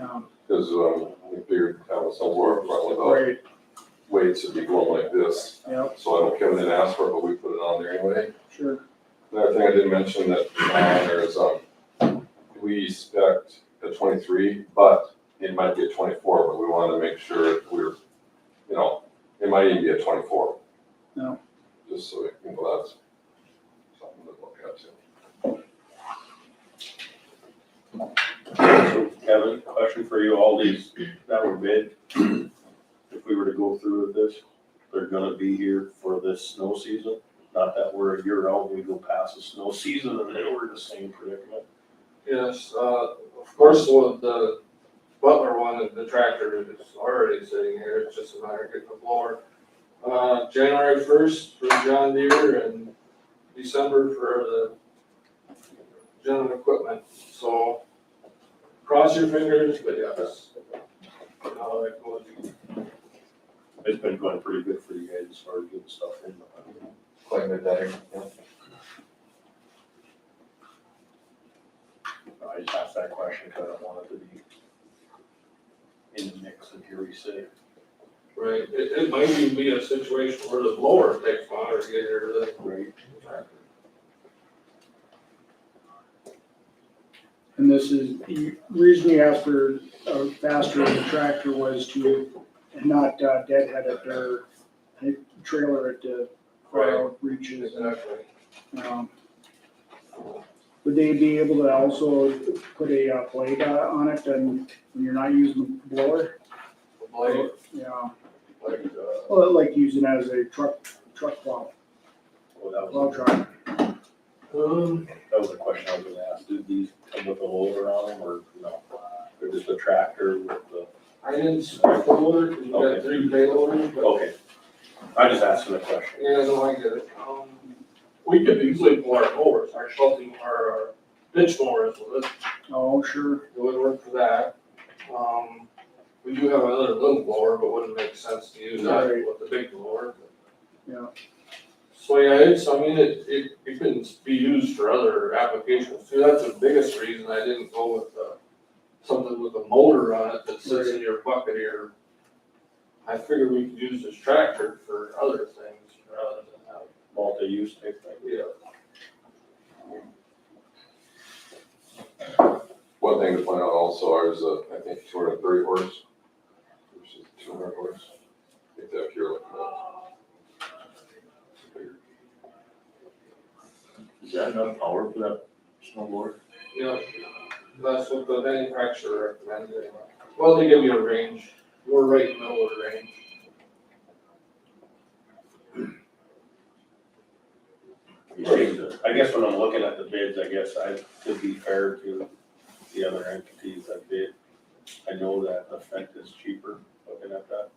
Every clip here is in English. um, Because, um, I figured having somewhere probably about great, weights would be going like this. yeah, So I know Kevin didn't ask for it, but we put it on there anyway. sure, Another thing I didn't mention that on there is, um, we expect a twenty-three, but it might be a twenty-four, but we wanted to make sure that we're, you know, it might even be a twenty-four. Yeah. Just so, we- you know, that's something to look at too. So Kevin, question for you, all these that were bid, if we were to go through with this, they're gonna be here for this snow season? Not that we're a year out, we go past the snow season and then we're in the same predicament. Yes, uh, of course, with the Butler one, the tractor is already sitting here, it's just a matter of getting the blower. Uh, January first for John Deere and December for the general equipment, so cross your fingers, but yes. Now that goes, It's been going pretty good for you guys as far as getting stuff in. Claim it that, yeah. I just asked that question because I don't want it to be in the mix and here we sit. Right, it, it might even be a situation where the blower takes longer to get here than Right. the tractor. and this is, the reason you asked for a faster tractor was to not uh, deadhead at their trailer at the far out reaches. Exactly. Um, Would they be able to also put a uh, blade uh, on it and when you're not using the blower? The blade, Yeah, like, uh, well, like using it as a truck, truck plow, Well, that plow was, truck. Um, that was the question I was gonna ask. Did these come with a loader on them or no? They're just a tractor with the I didn't spec the loader, 'cause we got Okay. three payloaders, but, Okay, I just asked him a question. yeah, no, I get it. Um, We could easily pull our mowers, our shelving, our, our ditch mowers, so that's, Oh, sure, it would work for that. Um, we do have another little blower, but wouldn't make sense to use that Right. with the big blower. Yeah. So, yeah, it's, I mean, it, it, it can be used for other applications too, that's the biggest reason I didn't go with, uh, something with a motor on it that sits in your bucket here. I figured we could use this tractor for other things rather than have Multi-use type thing. yeah. One thing to point out also is, uh, I think two hundred and thirty horse versus two hundred horse. I think that if you're looking at. Is that enough power for that snowboard? Yeah, that's what the manufacturer recommended anyway. Well, they give you a range, we're right in the middle of the range. I guess when I'm looking at the bids, I guess I, to be fair to the other entities that bid, I know that the Fent is cheaper, looking at that,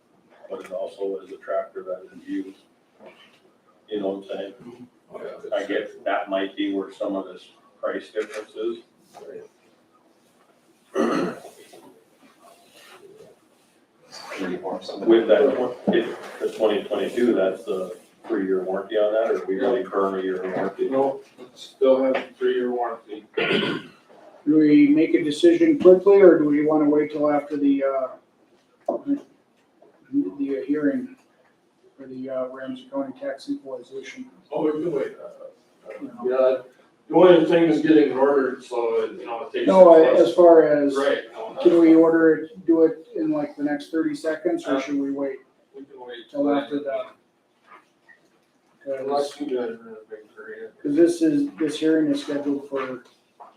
but it also is a tractor that is used. You know what I'm saying? I guess that might be where some of this price difference is. With that, if the twenty twenty-two, that's the three-year warranty on that, or we really burn a year warranty? You know, still have a three-year warranty. do we make a decision quickly, or do we wanna wait till after the, uh, the hearing for the uh, Ramsey County tax equalization? Oh, we can wait. you know? Yeah, the only thing is getting it ordered, so, you know, it takes. No, uh, as far as. Right, no, that's. Can we order it, do it in like the next thirty seconds, or should we wait We can wait. till after that? Because Unless you guys are in a big hurry. this is, this hearing is scheduled for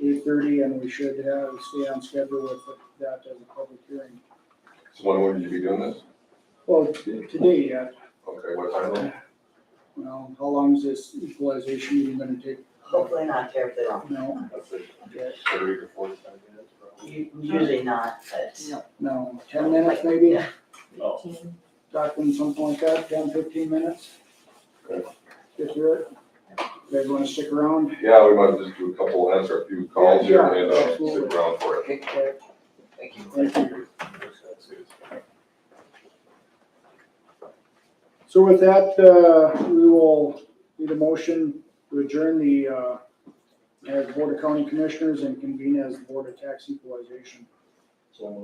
eight thirty, and we should have, stay on schedule with that as a public hearing. So when would you be doing this? Well, t- today, uh, yeah, Okay, what time? then? well, how long is this equalization meeting gonna take? Hopefully not terribly long, No, That's it, yeah, thirty to forty-five minutes, probably. U- usually not, but. no, ten minutes maybe, Yeah. Oh. Fifteen. talking something like that, ten, fifteen minutes? Okay. Get through it, you guys wanna stick around? Yeah, we might just do a couple, answer a few calls here Yeah, and, uh, absolutely. sit around for it. Okay. Thank you. Thank you. So with that, uh, we will need a motion to adjourn the, uh, as Board of County Commissioners and convene as Board of Tax Equalization.